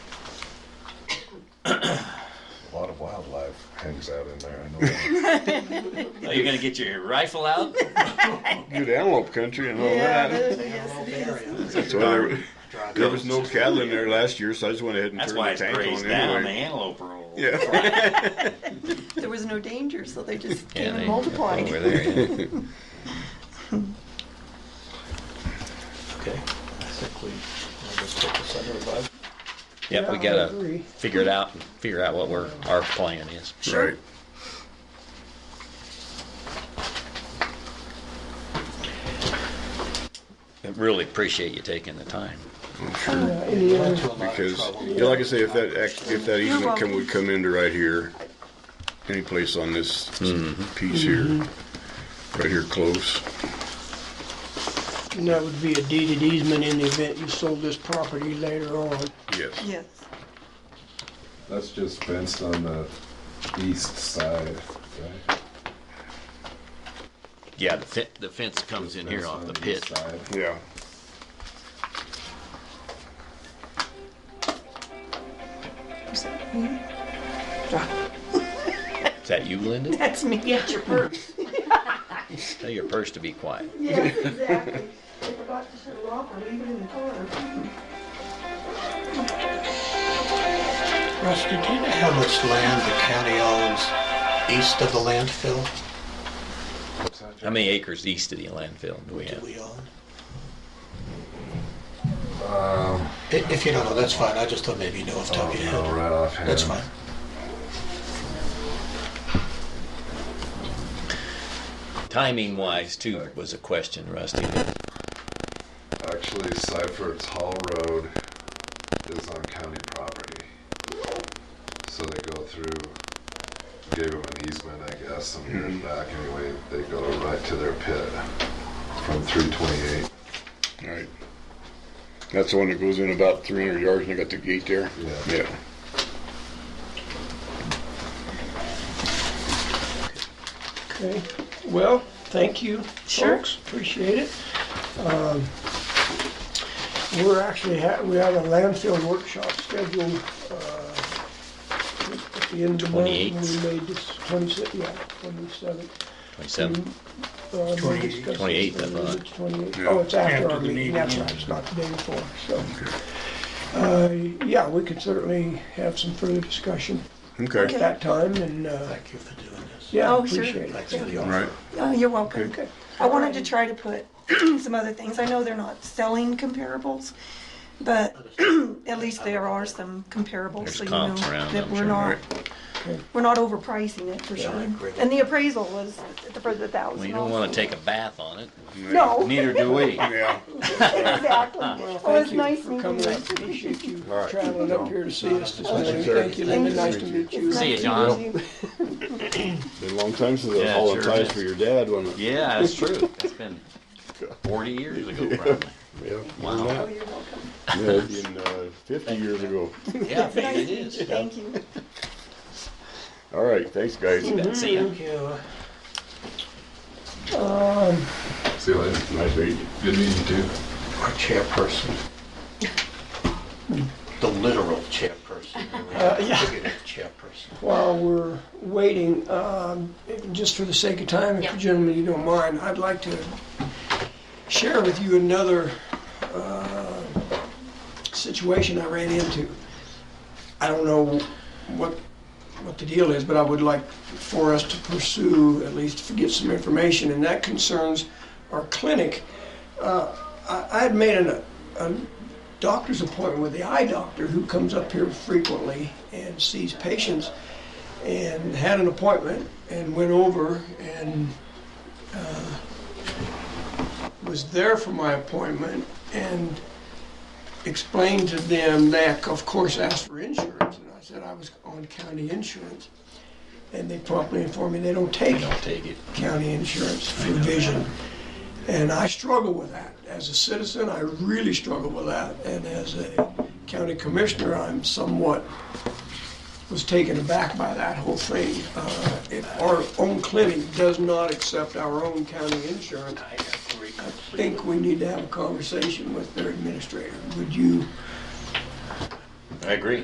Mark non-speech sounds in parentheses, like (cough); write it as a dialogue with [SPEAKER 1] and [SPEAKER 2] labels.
[SPEAKER 1] hangs out in there. I know. (laughs)
[SPEAKER 2] Oh,
[SPEAKER 3] Are you gonna get your rifle out?
[SPEAKER 1] Good antelope country and all
[SPEAKER 4] Yeah,
[SPEAKER 1] that.
[SPEAKER 4] but- yes, it is.
[SPEAKER 1] That's why there,
[SPEAKER 5] Drive
[SPEAKER 1] there
[SPEAKER 5] it.
[SPEAKER 1] was no cattle in there last year, so I just went ahead and
[SPEAKER 3] That's why
[SPEAKER 1] turned
[SPEAKER 3] it's grazed
[SPEAKER 1] the tank on
[SPEAKER 3] down. The
[SPEAKER 1] anyway.
[SPEAKER 3] antelope roll.
[SPEAKER 1] Yeah.
[SPEAKER 4] There was no danger, so they just
[SPEAKER 2] Yeah,
[SPEAKER 4] came
[SPEAKER 2] they-
[SPEAKER 4] and multiplied.
[SPEAKER 2] Over there, yeah.
[SPEAKER 5] Okay, I think we, I'll just take this under advisement.
[SPEAKER 2] Yep, we
[SPEAKER 6] Yeah, I
[SPEAKER 2] gotta
[SPEAKER 6] agree.
[SPEAKER 2] figure it out, and figure out what we're, our plan is.
[SPEAKER 1] (laughs) Right.
[SPEAKER 2] I Really appreciate you taking the time.
[SPEAKER 6] Yeah, Any
[SPEAKER 5] Went
[SPEAKER 6] other,
[SPEAKER 5] to a lot of
[SPEAKER 1] Because,
[SPEAKER 5] trouble.
[SPEAKER 1] yeah, like I say, if that, act- if that
[SPEAKER 4] You're
[SPEAKER 1] easement come,
[SPEAKER 4] welcome.
[SPEAKER 1] would come into right here, any place on this piece here,
[SPEAKER 4] Mm-hmm.
[SPEAKER 1] right here close,
[SPEAKER 6] and that would be a deeded easement in the event you sold this property later on.
[SPEAKER 1] yes.
[SPEAKER 4] Yes.
[SPEAKER 7] That's just fenced on the east side, right?
[SPEAKER 2] Yeah, the fe- the fence comes in here
[SPEAKER 7] Fenced
[SPEAKER 2] off
[SPEAKER 7] on
[SPEAKER 2] the
[SPEAKER 7] east
[SPEAKER 2] pit.
[SPEAKER 7] side.
[SPEAKER 1] Yeah.
[SPEAKER 2] Is that you, Linda?
[SPEAKER 4] That's me at your purse.
[SPEAKER 2] Tell your purse to be quiet.
[SPEAKER 4] Yes, exactly. I forgot to shut it off or leave it in the car.
[SPEAKER 5] Rusty, do you know how much land the county owns east of the landfill
[SPEAKER 2] How many acres east of the landfill do we
[SPEAKER 5] that
[SPEAKER 2] have?
[SPEAKER 5] we own? I- If you don't know, that's fine, I just thought maybe you knew off the top of
[SPEAKER 7] Oh,
[SPEAKER 5] your
[SPEAKER 7] No,
[SPEAKER 5] head.
[SPEAKER 7] right offhand.
[SPEAKER 5] That's fine.
[SPEAKER 2] Timing wise too was a question, Rusty.
[SPEAKER 7] Actually, Seifert's Hall Road is on county property. So they go through, gave them an easement, I guess, some years
[SPEAKER 1] Mm-hmm.
[SPEAKER 7] back anyway. They go right to their pit from 328.
[SPEAKER 1] Right. That's the one that goes in about three hundred yards and they got the gate there?
[SPEAKER 7] Yeah.
[SPEAKER 1] Yeah.
[SPEAKER 6] Okay, well, thank you,
[SPEAKER 4] Sure.
[SPEAKER 6] folks, appreciate it. Um, We're actually, ha- we have a landfill workshop scheduled uh, at the end of the month.
[SPEAKER 2] 28th.
[SPEAKER 6] We made this, 27th, yeah, 27th.
[SPEAKER 2] Twenty-seven.
[SPEAKER 6] Uh, no discussion.
[SPEAKER 2] 28th, I thought.
[SPEAKER 6] It's 28th.
[SPEAKER 1] Yeah.
[SPEAKER 6] Oh, it's after
[SPEAKER 8] After
[SPEAKER 6] our
[SPEAKER 8] the
[SPEAKER 6] meeting,
[SPEAKER 8] meeting,
[SPEAKER 6] that's
[SPEAKER 8] yeah.
[SPEAKER 6] right, it's not the day before, so. Uh, Yeah, we could certainly have some further discussion at
[SPEAKER 1] Okay.
[SPEAKER 6] that time, and, uh,
[SPEAKER 5] Thank you for doing this.
[SPEAKER 6] yeah,
[SPEAKER 4] Oh, sure.
[SPEAKER 6] appreciate it.
[SPEAKER 5] Thanks for the offer.
[SPEAKER 1] Right.
[SPEAKER 4] Oh, you're welcome.
[SPEAKER 6] Okay.
[SPEAKER 4] I wanted to try to put (clears throat) some other things. I know they're not selling comparables, but (clears throat) at least there are some comparables,
[SPEAKER 2] There's
[SPEAKER 4] so you know
[SPEAKER 2] comps around,
[SPEAKER 4] that
[SPEAKER 2] I'm
[SPEAKER 4] we're
[SPEAKER 2] sure.
[SPEAKER 4] not,
[SPEAKER 6] Okay.
[SPEAKER 4] we're not overpricing it for sure.
[SPEAKER 5] I agree.
[SPEAKER 4] And the appraisal was at the for the thousand.
[SPEAKER 2] Well, you don't
[SPEAKER 4] also.
[SPEAKER 2] wanna take a bath on it.
[SPEAKER 4] No,
[SPEAKER 2] (laughs) Neither do we.
[SPEAKER 1] Yeah.
[SPEAKER 4] exactly.
[SPEAKER 6] Well,
[SPEAKER 4] Well,
[SPEAKER 6] thank
[SPEAKER 4] it's
[SPEAKER 6] you
[SPEAKER 4] nice
[SPEAKER 6] for coming up,
[SPEAKER 4] meeting
[SPEAKER 6] appreciate you
[SPEAKER 1] All right.
[SPEAKER 6] traveling up here to see us this morning.
[SPEAKER 1] sir.
[SPEAKER 6] Thank you, Linda, nice to meet you.
[SPEAKER 2] See you,
[SPEAKER 4] you.
[SPEAKER 2] John.
[SPEAKER 1] Been a long time since I
[SPEAKER 3] Yeah, sure
[SPEAKER 1] hauled ties
[SPEAKER 3] is.
[SPEAKER 1] for your dad, wasn't it?
[SPEAKER 3] Yeah, that's true. That's been 40 years ago, probably.
[SPEAKER 1] Yeah.
[SPEAKER 3] Wow.
[SPEAKER 4] You're welcome.
[SPEAKER 1] Yeah, in, uh, fifty years ago.
[SPEAKER 3] Yeah, I think it is.
[SPEAKER 4] Thank you.
[SPEAKER 1] All right, thanks, guys.
[SPEAKER 2] See ya.
[SPEAKER 5] Thank you.
[SPEAKER 7] See you later.
[SPEAKER 1] Nice meeting you.
[SPEAKER 7] Good meeting you too.
[SPEAKER 5] Our chairperson. The literal chairperson.
[SPEAKER 6] Uh, yeah.
[SPEAKER 5] Figurative Chairperson.
[SPEAKER 6] While we're waiting, um, just for the sake of time, if you gentlemen you don't mind, I'd like to share with you another uh, situation I ran into. I don't know what, what the deal is, but I would like for us to pursue, at least to get some information, and that concerns our clinic. Uh, I I had made an, a doctor's appointment with the eye doctor who comes up here frequently and sees patients and had an appointment and went over and uh, was there for my appointment and explained to them that of course asked for insurance and I said I was on county insurance and they promptly informed me they don't take it
[SPEAKER 2] Take it.
[SPEAKER 6] county insurance for vision. And I struggle with that. As a citizen, I really struggle with that. And as a county commissioner, I'm somewhat, was taken aback by that whole thing. Uh, If our own clinic does not accept our own county insurance,
[SPEAKER 5] I agree
[SPEAKER 6] I
[SPEAKER 5] completely.
[SPEAKER 6] think we need to have a conversation with their administrator. Would you
[SPEAKER 2] I agree.